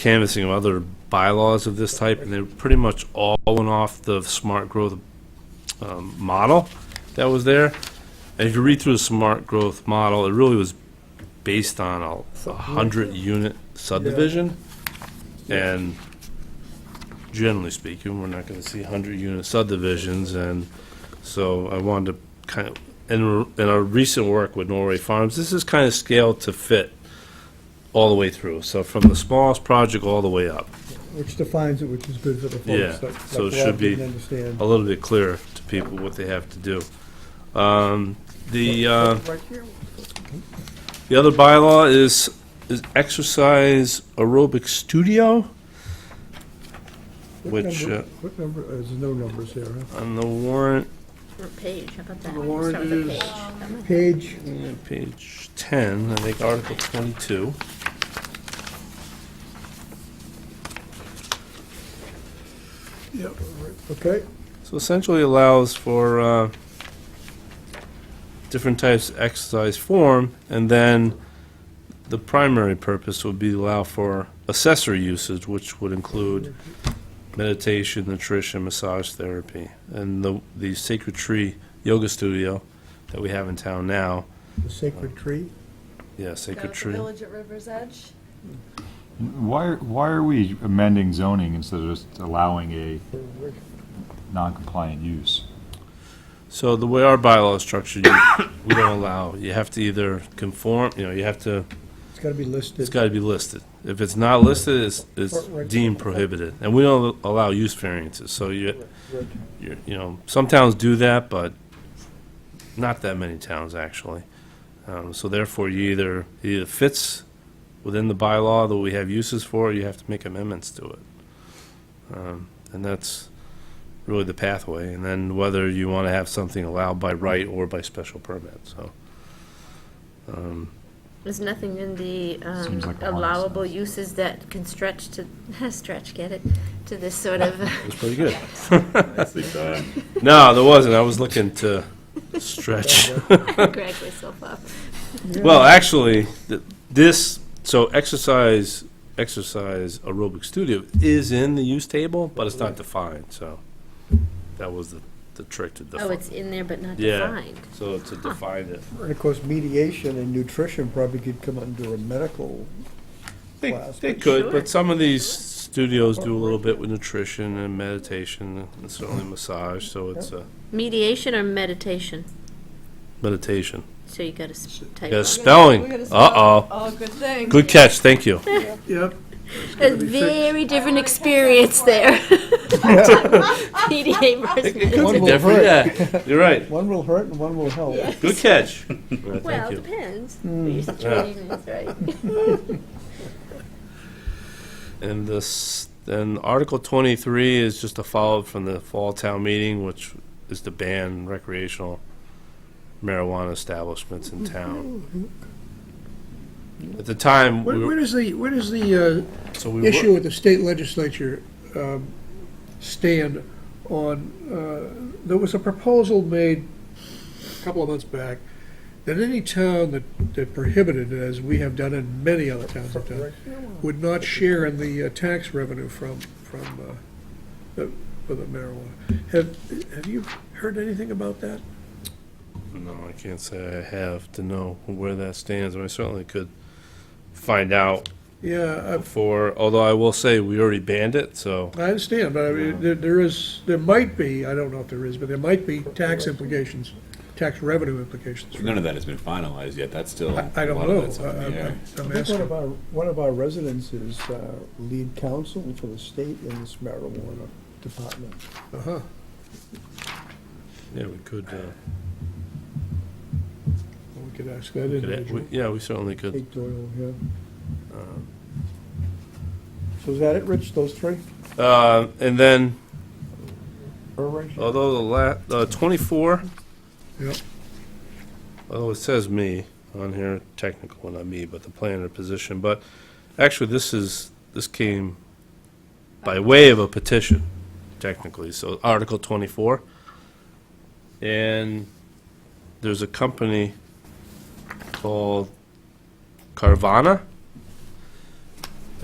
canvassing of other bylaws of this type, and they're pretty much all off the smart growth um, model that was there. And if you read through the smart growth model, it really was based on a- a hundred-unit subdivision. And generally speaking, we're not gonna see hundred-unit subdivisions, and so I wanted to kind of, in, in our recent work with Norway Farms, this is kind of scaled to fit all the way through, so from the smallest project all the way up, Which defines it, which is good for the Yeah, folks that so it that should be- didn't understand. a little bit clearer to people what they have to do. Um, The, uh, the other bylaw is, is exercise aerobic studio. What which, number- uh, What number, uh, there's no numbers here, huh? On the warrant, Or page, how about that? The warrant Start with a is- page. That might- Page, uh, page 10, I think Article 22. okay, So essentially allows for uh, different types of exercise form, and then the primary purpose would be allow for accessory usage, which would include meditation, nutrition, massage therapy, and the, the Sacred Tree Yoga Studio that we have in town now. the sacred tree. Yeah, Sacred Tree. Village at River's Edge. Why, why are we amending zoning instead of just allowing a non-compliant use? So the way our bylaw is structured, you- we don't allow, you have to either conform, you know, you have to It's gotta be listed. It's got to be listed. If it's not listed, it's, it's deemed prohibited. And we don't allow use variances, so you, Right. you you know, some towns do that, but not that many towns, actually. Um, So therefore, you either, it either fits within the bylaw that we have uses for, or you have to make amendments to it. Um, And that's really the pathway, and then whether you want to have something allowed by right or by special permit, so. um, There's nothing in the um, Seems like a lot of allowable sense. uses that can stretch to, stretch, get it, to this sort of, It's pretty good. No, there wasn't. I was looking to stretch. Greg myself up. Well, actually, th- this, so exercise, exercise aerobic studio is in the use table, but it's not defined, so that was the, the trick to Oh, define. it's in there but not Yeah. defined. So to define it. And of course, mediation and nutrition probably could come under a medical They, Class, they but- could, Sure. but some of these studios do a little bit with nutrition and meditation and certainly massage, so it's a Mediation or meditation? meditation. So you gotta s- type. Yeah, on. We're spelling. gonna Uh-oh. stop. Oh, good thing. Good catch, thank you. Yep. A very different experience there. PDA versus Could be One will different, hurt. yeah. You're right. One will hurt and one will help. Yeah. Good catch. Well, Thank you. depends Hmm. what your situation is, right? And this, then Article twenty-three is just a follow-up from the fall town meeting, which is to ban recreational marijuana establishments in town. At the time, we Where where were, does the, where does the so uh, we issue were, with the state legislature um, stand on, uh, there was a proposal made a couple of months back that any town that that prohibited it, as we have done in many other towns in town, would not share in the uh, tax revenue from, from uh, the for the marijuana. Have, have you heard anything about that? no, I can't say I have to know where that stands, but I certainly could find out Yeah, uh, before, although I will say, we already banned it, so, I understand, but I mean, there- there is, there might be, I don't know if there is, but there might be tax implications, tax revenue implications. None of that has been finalized yet, that's still. I I a don't lot of know. Uh, that's up in the I- air. I'm- I'm I think one of asking. our, one of our residents is uh, lead counsel for the state in this marijuana department. Uh-huh. yeah, we could, uh, Well, We could ask that could- individual. we- yeah, we certainly could. Kate Doyle, yeah. So is that it, Rich, those three? Uh, and then Or Rich? Although the la, uh, twenty-four. Yep. Although it says me on here, technical, well, not me, but the planner position, but actually, this is, this came by way of a petition, technically, so Article twenty-four. And there's a company called Carvana